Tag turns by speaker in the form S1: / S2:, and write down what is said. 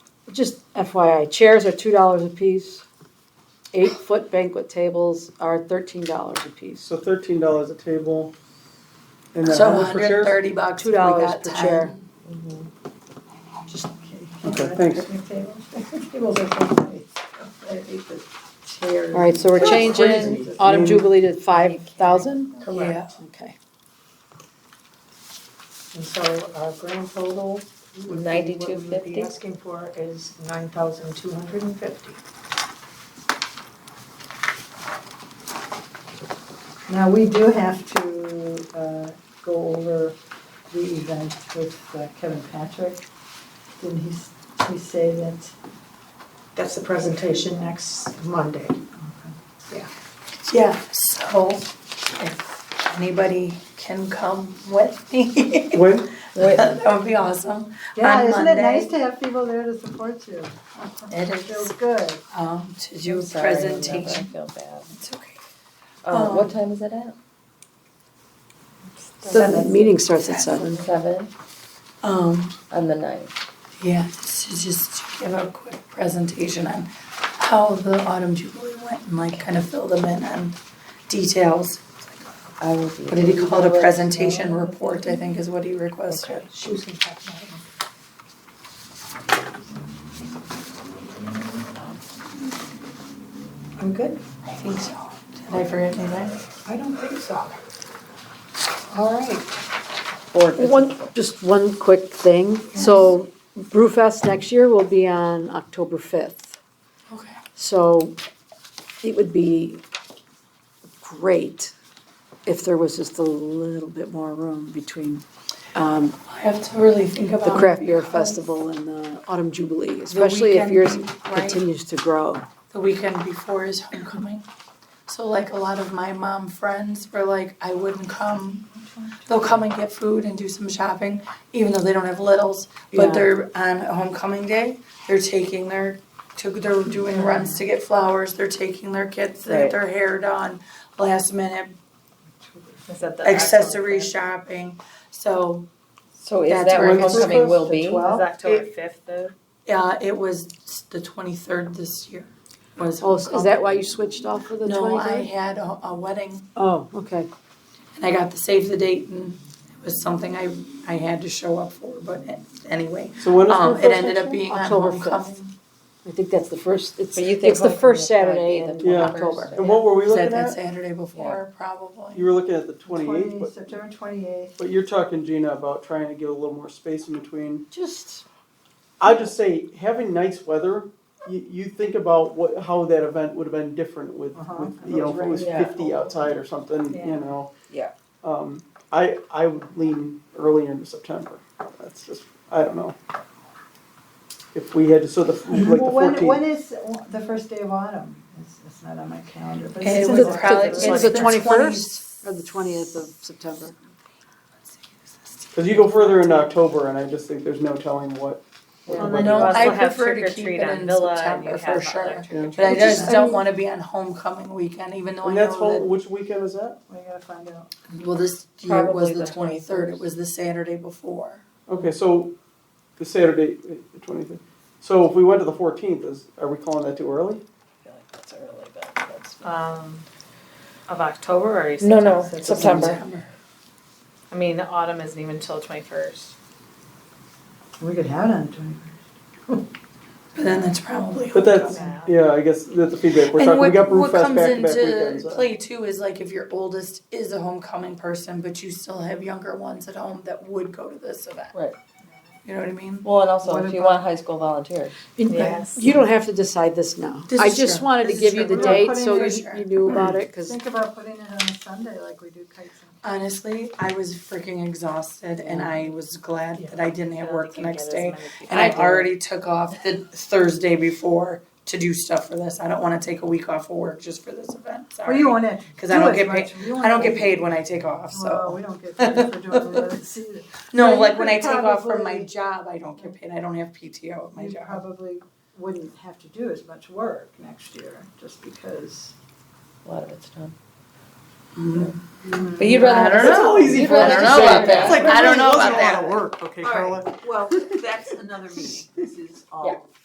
S1: Just FYI, chairs are two dollars a piece. Eight-foot banquet tables are thirteen dollars a piece.
S2: So thirteen dollars a table. And then
S3: So
S2: how much for
S3: hundred and
S2: chairs?
S3: thirty bucks,
S1: Two
S3: we
S1: dollars
S3: got
S1: per chair.
S3: ten.
S2: Okay, thanks.
S4: Tables are so nice. I hate the chairs.
S1: All right, so we're
S4: That's
S1: changing
S4: crazy.
S1: autumn
S2: Mm.
S1: jubilee to five thousand?
S4: Correct.
S1: Okay.
S5: And so our grand total, ninety-two fifty. What we'd be
S3: 92.50?
S5: asking for is nine thousand two hundred and fifty.
S4: Now, we do have to uh, go over the event with uh, Kevin Patrick. Didn't he, s- he say that?
S5: That's the presentation next Monday.
S3: Yeah, so if anybody can come with me,
S2: When,
S3: that would be awesome.
S4: Yeah,
S3: On
S4: isn't it nice
S3: Monday.
S4: to have people there to support you?
S3: It
S4: It feels
S3: is,
S4: good.
S3: um, to
S6: I'm
S3: do
S6: sorry, Amanda,
S3: presentation.
S6: I feel bad.
S3: It's okay.
S6: Uh,
S1: Oh,
S3: Um,
S6: what time is it at?
S1: The meeting starts at seven.
S6: Seven
S3: Um,
S6: on the ninth.
S3: Yeah, so just to give a quick presentation on how the autumn jubilee went and like kind of fill them in on details.
S6: I will be.
S3: What did he call it, a presentation report, I think is what he requested.
S6: Okay.
S5: She was gonna talk about it. I'm good.
S3: I think so. Did I forget anything?
S5: I don't think so.
S3: All right.
S6: Or
S1: One, just one quick thing. So Brewfest next year will be on October fifth.
S3: Okay.
S1: So it would be great if there was just a little bit more room between um,
S3: I have to really think about.
S1: the
S3: it
S1: Craft Beer
S3: because
S1: Festival and the Autumn Jubilee, especially if yours
S3: weekend, right?
S1: continues to grow.
S3: The weekend before is homecoming. So like a lot of my mom friends were like, I wouldn't come. They'll come and get food and do some shopping, even though they don't have littles.
S1: Yeah.
S3: But they're on a homecoming day, they're taking their, took, they're doing runs to get flowers, they're taking their kids, to get
S6: Right.
S3: their hair done, last minute
S6: is that the
S3: accessory shopping. So,
S6: So is
S3: That's
S6: that
S3: where
S6: where
S3: it's
S6: homecoming will
S4: supposed to
S6: be? Is
S4: twelve.
S6: October fifth though?
S3: yeah, it was the twenty-third this year was
S1: Oh, so is
S3: homecoming.
S1: that why you switched off for the
S3: No, I
S1: twenty-third?
S3: had a, a wedding
S1: Oh, okay.
S3: And I got the save the date and it was something I, I had to show up for, but anyway.
S2: so when is
S3: Um,
S2: Brewfest
S3: it ended
S2: next
S3: up
S2: year?
S3: being on
S1: October
S3: homecoming.
S1: I think that's the first, it's,
S6: But you think
S1: it's the first Saturday
S6: homecoming would probably be
S1: in
S6: the
S2: Yeah.
S1: October.
S2: And what were we
S3: Is that
S2: looking
S3: that
S2: at?
S3: Saturday before, probably?
S2: You were looking at the twenty-eighth,
S4: 20
S2: but,
S4: September twenty-eighth.
S2: but you're talking, Gina, about trying to get a little more space in between.
S1: Just,
S2: I'd just say, having nice weather, you, you think about what, how that event would have been different with,
S4: Uh-huh.
S2: with,
S4: If it
S2: you know,
S4: was
S2: if it was
S6: raining.
S2: fifty outside or something, you
S4: Yeah.
S2: know?
S6: Yeah.
S2: Um, I, I would lean earlier into September, that's just, I don't know. If we had to, so the, like the
S4: Well, when, when
S2: fourteenth,
S4: is the first day of autumn? It's, it's not on my calendar, but
S3: It
S4: it's.
S1: was
S4: in the-
S1: probably-
S4: it's
S1: it's
S4: like-
S1: the 21st? or the twentieth of September.
S2: cause you go further into October and I just think there's no telling what. what
S4: Well,
S2: the
S4: then
S2: weather-
S3: No,
S6: You also
S3: I
S6: have
S3: prefer to
S6: trick or
S3: keep
S6: treat
S3: it
S6: on
S3: in
S6: Villa and
S3: September
S6: you
S3: for
S6: have
S3: sure.
S6: other trick or
S3: But I
S4: Which
S3: just
S4: is-
S3: don't wanna be on homecoming weekend, even though I
S2: And that's, home-
S3: know
S2: which weekend is that?
S4: We gotta find out.
S3: that, well, this year was
S6: Probably
S3: the
S6: the
S3: twenty-third, it
S6: 21st.
S3: was the Saturday before.
S2: Okay, so the Saturday, the twenty-third. So if we went to the fourteenth, is, are we calling that too early?
S6: I feel like that's early, but that's.
S7: um, of October or
S6: No,
S7: September?
S6: no, September.
S7: I mean, the autumn isn't even till twenty first.
S4: We could have it on the twenty-first.
S3: But then that's probably
S2: But that's,
S3: homecoming.
S2: yeah, I guess that's the feedback. We're
S3: And
S2: talking, we
S3: what,
S2: got Brewfest
S3: what comes
S2: back to back
S3: into
S2: weekends. uh,
S3: play too is like if your oldest is a homecoming person, but you still have younger ones at home that would go to this event.
S6: Right.
S3: You know what I mean?
S6: Well, and also
S4: What
S6: if you
S4: about-
S6: want high school volunteers.
S1: And
S7: Yes.
S1: You don't have to decide this now.
S3: This
S1: I
S3: is
S1: just
S3: true.
S1: wanted to
S3: This is
S1: give you the
S3: true.
S4: We're not
S1: date
S4: putting
S1: so
S3: it-
S1: you you knew about it, because
S4: Think about putting it on a Sunday like we do kites and.
S3: Honestly, I was freaking exhausted and I was glad that I didn't have work the next day. And I already took off the Thursday before to do stuff for this. I don't want to take a week off of work just for this event. Sorry.
S4: Well, Oh, you want it.
S3: 'Cause I don't get paid- I don't get paid when I take off,
S4: Well,
S3: so.
S4: we don't get paid for doing this either.
S3: No,
S4: Well,
S3: like
S4: you
S3: when I
S4: could
S3: take off from my
S4: probably-
S3: job, I don't get paid. I don't have PTO at my
S4: You
S3: job.
S4: probably wouldn't have to do as much work next year, just because.
S6: A lot of it's done.
S3: Mhm.
S1: Mm-hmm.
S6: But you'd rather.
S3: I
S6: have
S3: don't
S6: a-
S3: know.
S2: It's all easy
S6: you'd
S2: for us
S6: rather
S2: to
S6: know
S2: say.
S6: about that.
S2: It's like,
S3: I
S2: really
S3: don't know
S2: wasn't
S3: about
S2: a lot of work, okay,
S5: All right.
S2: Carla?
S5: Well, that's another meeting, this is
S6: Yeah.
S5: all